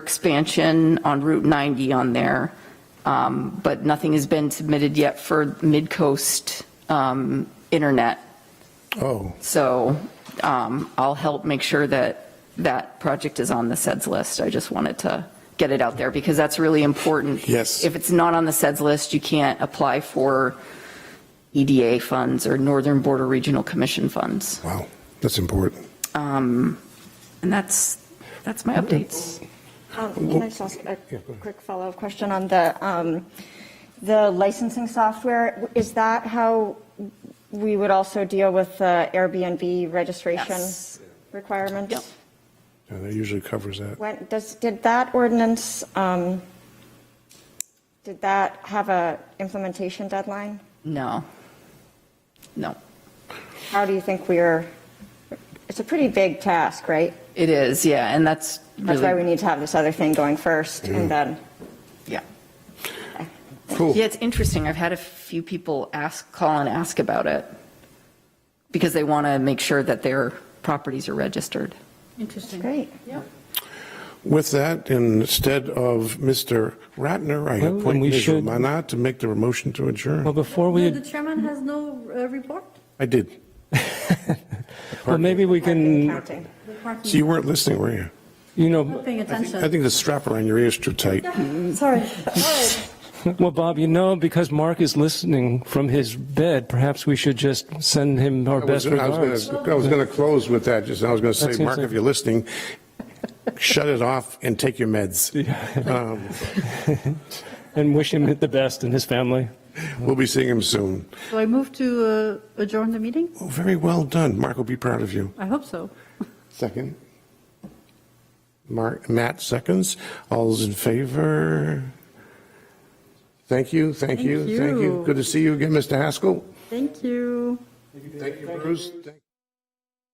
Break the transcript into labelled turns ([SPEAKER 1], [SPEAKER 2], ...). [SPEAKER 1] expansion on Route 90 on there, um, but nothing has been submitted yet for Midcoast um, Internet.
[SPEAKER 2] Oh,
[SPEAKER 1] So um, I'll help make sure that that project is on the SEDS list. I just wanted to get it out there because that's really important.
[SPEAKER 2] Yes.
[SPEAKER 1] If it's not on the SEDS list, you can't apply for EDA funds or Northern Border Regional Commission funds.
[SPEAKER 2] wow, that's important.
[SPEAKER 1] Um, And that's, that's my updates.
[SPEAKER 3] Um, Can I just ask a quick follow-up question on the, um, the licensing software? Is that how we would also deal with the Airbnb registration
[SPEAKER 1] Yes.
[SPEAKER 3] requirements?
[SPEAKER 1] Yep.
[SPEAKER 2] Yeah, That usually covers that.
[SPEAKER 3] When, does, did that ordinance, um, did that have a implementation deadline?
[SPEAKER 1] No. No,
[SPEAKER 3] How do you think we're, it's a pretty big task, right?
[SPEAKER 1] it is, yeah, and that's
[SPEAKER 3] That's why we
[SPEAKER 1] really,
[SPEAKER 3] need to have this other thing going first and then.
[SPEAKER 1] yeah.
[SPEAKER 2] Cool.
[SPEAKER 1] Yeah, it's interesting. I've had a few people ask, call and ask about it because they want to make sure that their properties are registered. Mm-hmm.
[SPEAKER 4] Interesting.
[SPEAKER 3] Great.
[SPEAKER 2] With that, instead of Mr. Ratner, I
[SPEAKER 5] Well,
[SPEAKER 2] appoint
[SPEAKER 5] we
[SPEAKER 2] Ms.
[SPEAKER 5] should-
[SPEAKER 2] Romana to make the motion to
[SPEAKER 5] Well,
[SPEAKER 2] adjourn.
[SPEAKER 5] before
[SPEAKER 4] No, the
[SPEAKER 5] we,
[SPEAKER 4] chairman has no uh, report?
[SPEAKER 2] I did.
[SPEAKER 5] well, maybe we can,
[SPEAKER 3] Counting.
[SPEAKER 4] The parking-
[SPEAKER 2] So you weren't listening, were you?
[SPEAKER 5] you
[SPEAKER 4] Not
[SPEAKER 5] know,
[SPEAKER 4] paying
[SPEAKER 2] I
[SPEAKER 4] attention.
[SPEAKER 2] think the strap around your ear is too tight.
[SPEAKER 4] Sorry. All right.
[SPEAKER 5] well, Bob, you know, because Mark is listening from his bed, perhaps we should just send him our
[SPEAKER 2] I
[SPEAKER 5] best
[SPEAKER 2] was I
[SPEAKER 5] regards.
[SPEAKER 2] was gonna- I was going to close with that, just, I was going to
[SPEAKER 5] That's
[SPEAKER 2] say, Mark,
[SPEAKER 5] interesting.
[SPEAKER 2] if you're listening, shut it off and take your meds. Um,
[SPEAKER 5] And wish him the best and his family.
[SPEAKER 2] We'll be seeing him soon.
[SPEAKER 4] So I move to uh, adjourn the meeting?
[SPEAKER 2] Oh, Very well done. Mark will be proud of you.
[SPEAKER 4] I hope so.
[SPEAKER 2] Second. Mark, Matt seconds. All's in favor? Thank you, thank you,
[SPEAKER 4] Thank
[SPEAKER 2] thank you.
[SPEAKER 4] you.
[SPEAKER 2] Good to see you again, Mr. Haskell.
[SPEAKER 4] Thank you.
[SPEAKER 2] Thank you, Bruce. Thank-